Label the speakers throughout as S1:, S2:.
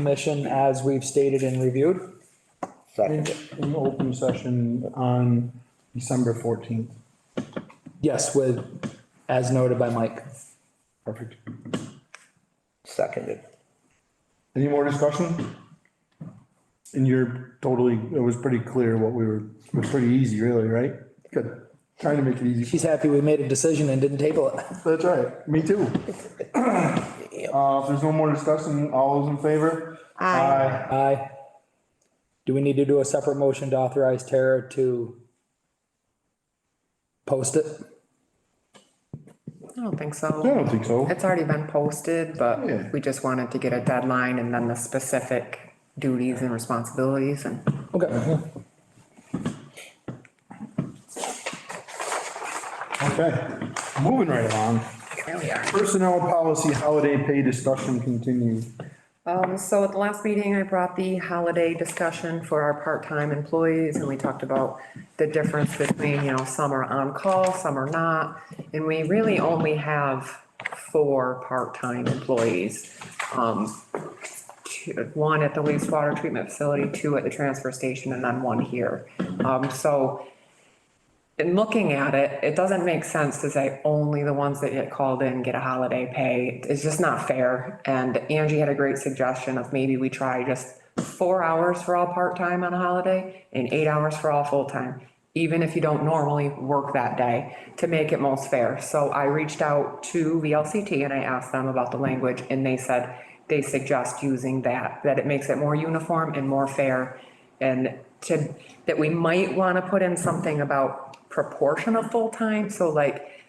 S1: commission as we've stated and reviewed.
S2: Second,
S3: In, in open session on December fourteenth.
S1: Yes, with, as noted by Mike.
S3: Perfect.
S2: seconded.
S3: Any more discussion? And you're totally, it was pretty clear what we were, it was pretty easy really, right? Good. Trying to make it easy.
S1: She's happy we made a decision and didn't table it.
S3: That's right. Me too. Uh, if there's no more discussion, all those in favor?
S4: Aye.
S1: Aye. Do we need to do a separate motion to authorize Tara to post it?
S4: I don't think
S3: I
S4: so.
S3: don't think so.
S4: It's already been posted,
S3: Yeah.
S4: but we just wanted to get a deadline and then the specific duties and responsibilities and.
S1: Okay.
S3: Okay, moving right along.
S4: There we are.
S3: Personnel policy holiday pay discussion continued.
S4: Um, so at the last meeting, I brought the holiday discussion for our part-time employees, and we talked about the difference between, you know, some are on-call, some are not, and we really only have four part-time employees. Um, two- one at the wastewater treatment facility, two at the transfer station, and then one here. Um, so in looking at it, it doesn't make sense to say only the ones that get called in get a holiday pay. It's just not fair. And Angie had a great suggestion of maybe we try just four hours for all part-time on a holiday and eight hours for all full-time, even if you don't normally work that day, to make it most fair. So I reached out to VLCT and I asked them about the language and they said they suggest using that, that it makes it more uniform and more fair and to, that we might want to put in something about proportion of full-time, so like,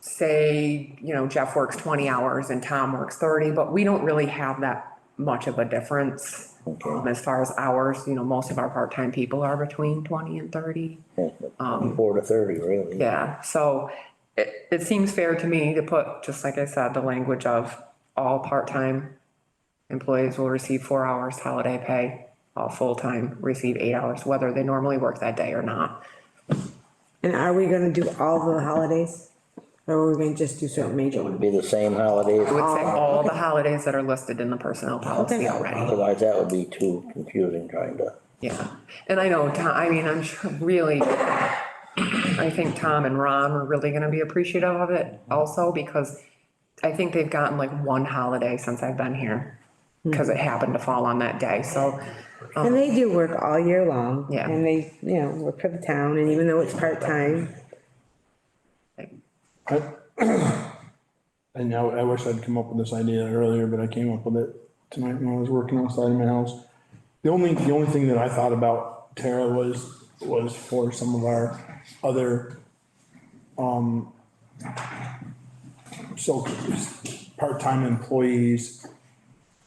S4: say, you know, Jeff works twenty hours and Tom works thirty, but we don't really have that much of a difference um, as far as hours, you know, most of our part-time people are between twenty and thirty.
S2: Four to thirty, really.
S4: Yeah, so it, it seems fair to me to put, just like I said, the language of all part-time employees will receive four hours holiday pay, all full-time receive eight hours, whether they normally work that day or not.
S5: And are we gonna do all the holidays? Or are we gonna just do certain major ones?
S2: Be the same holidays,
S4: I would say all the holidays that are listed in the personnel policy
S5: Okay.
S4: already,
S2: otherwise that would be too confusing trying to.
S4: yeah. And I know, Tom, I mean, I'm sure really, I think Tom and Ron are really gonna be appreciative of it also, because I think they've gotten like one holiday since I've been here,
S3: Hmm.
S4: because it happened to fall on that day, so.
S5: And they do work all year long.
S4: Yeah.
S5: And they, you know, work for the town, and even though it's part-time,
S3: I know, I wish I'd come up with this idea earlier, but I came up with it tonight when I was working outside of my house. The only, the only thing that I thought about Tara was, was for some of our other, um, so, part-time employees.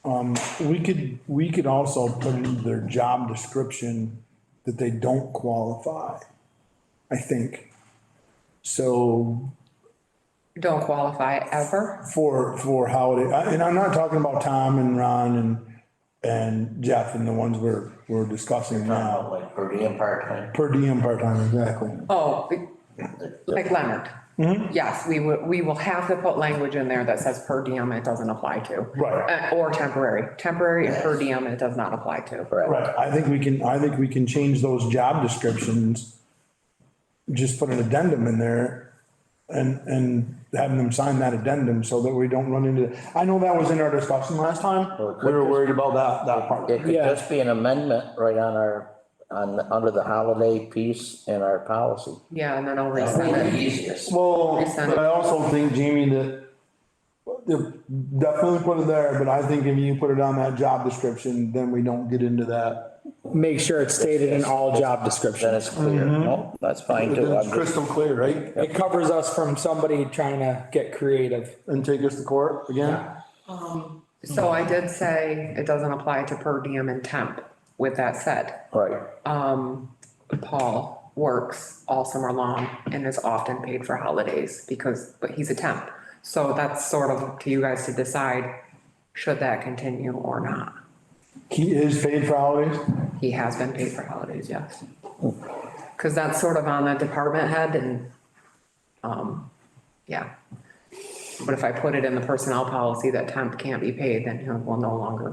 S3: Um, we could, we could also put in their job description that they don't qualify, I think. So
S4: Don't qualify ever?
S3: for, for holiday, I- and I'm not talking about Tom and Ron and, and Jeff and the ones we're, we're discussing now.
S2: Like per diem part-time.
S3: Per diem part-time, exactly.
S4: Oh, like Leonard.
S3: Mm-hmm.
S4: Yes, we will, we will have to put language in there that says per diem it doesn't apply to.
S3: Right.
S4: Uh, Or temporary, temporary and per diem it does not apply to.
S3: Right, I think we can, I think we can change those job descriptions. Just put an addendum in there and, and having them sign that addendum so that we don't run into, I know that was in our discussion last time.
S2: Well, it could
S3: We were worried about that, that part.
S2: It could
S1: Yeah.
S2: just be an amendment right on our, on, under the holiday piece in our policy.
S4: Yeah, and then I'll resend it.
S2: easiest.
S3: Well,
S4: Resend
S3: but
S4: it.
S3: I also think, Jamie, that that definitely put it there, but I think if you put it on that job description, then we don't get into that.
S1: Make sure it's stated in all job
S2: Then
S1: descriptions.
S2: it's clear. No, that's fine
S3: Mm-hmm. Then
S2: too. I'm
S3: it's
S2: just-
S3: crystal clear, right?
S1: It covers us from somebody trying to get creative.
S3: And take us to court again?
S4: So I did say it doesn't apply to per diem and temp. With that said,
S2: Right,
S4: um, Paul works all summer long and is often paid for holidays because, but he's a temp. So that's sort of up to you guys to decide, should that continue or not?
S3: He is paid for holidays?
S4: He has been paid for holidays, yes. Cause that's sort of on the department head and, um, yeah. But if I put it in the personnel policy that temp can't be paid, then he will no longer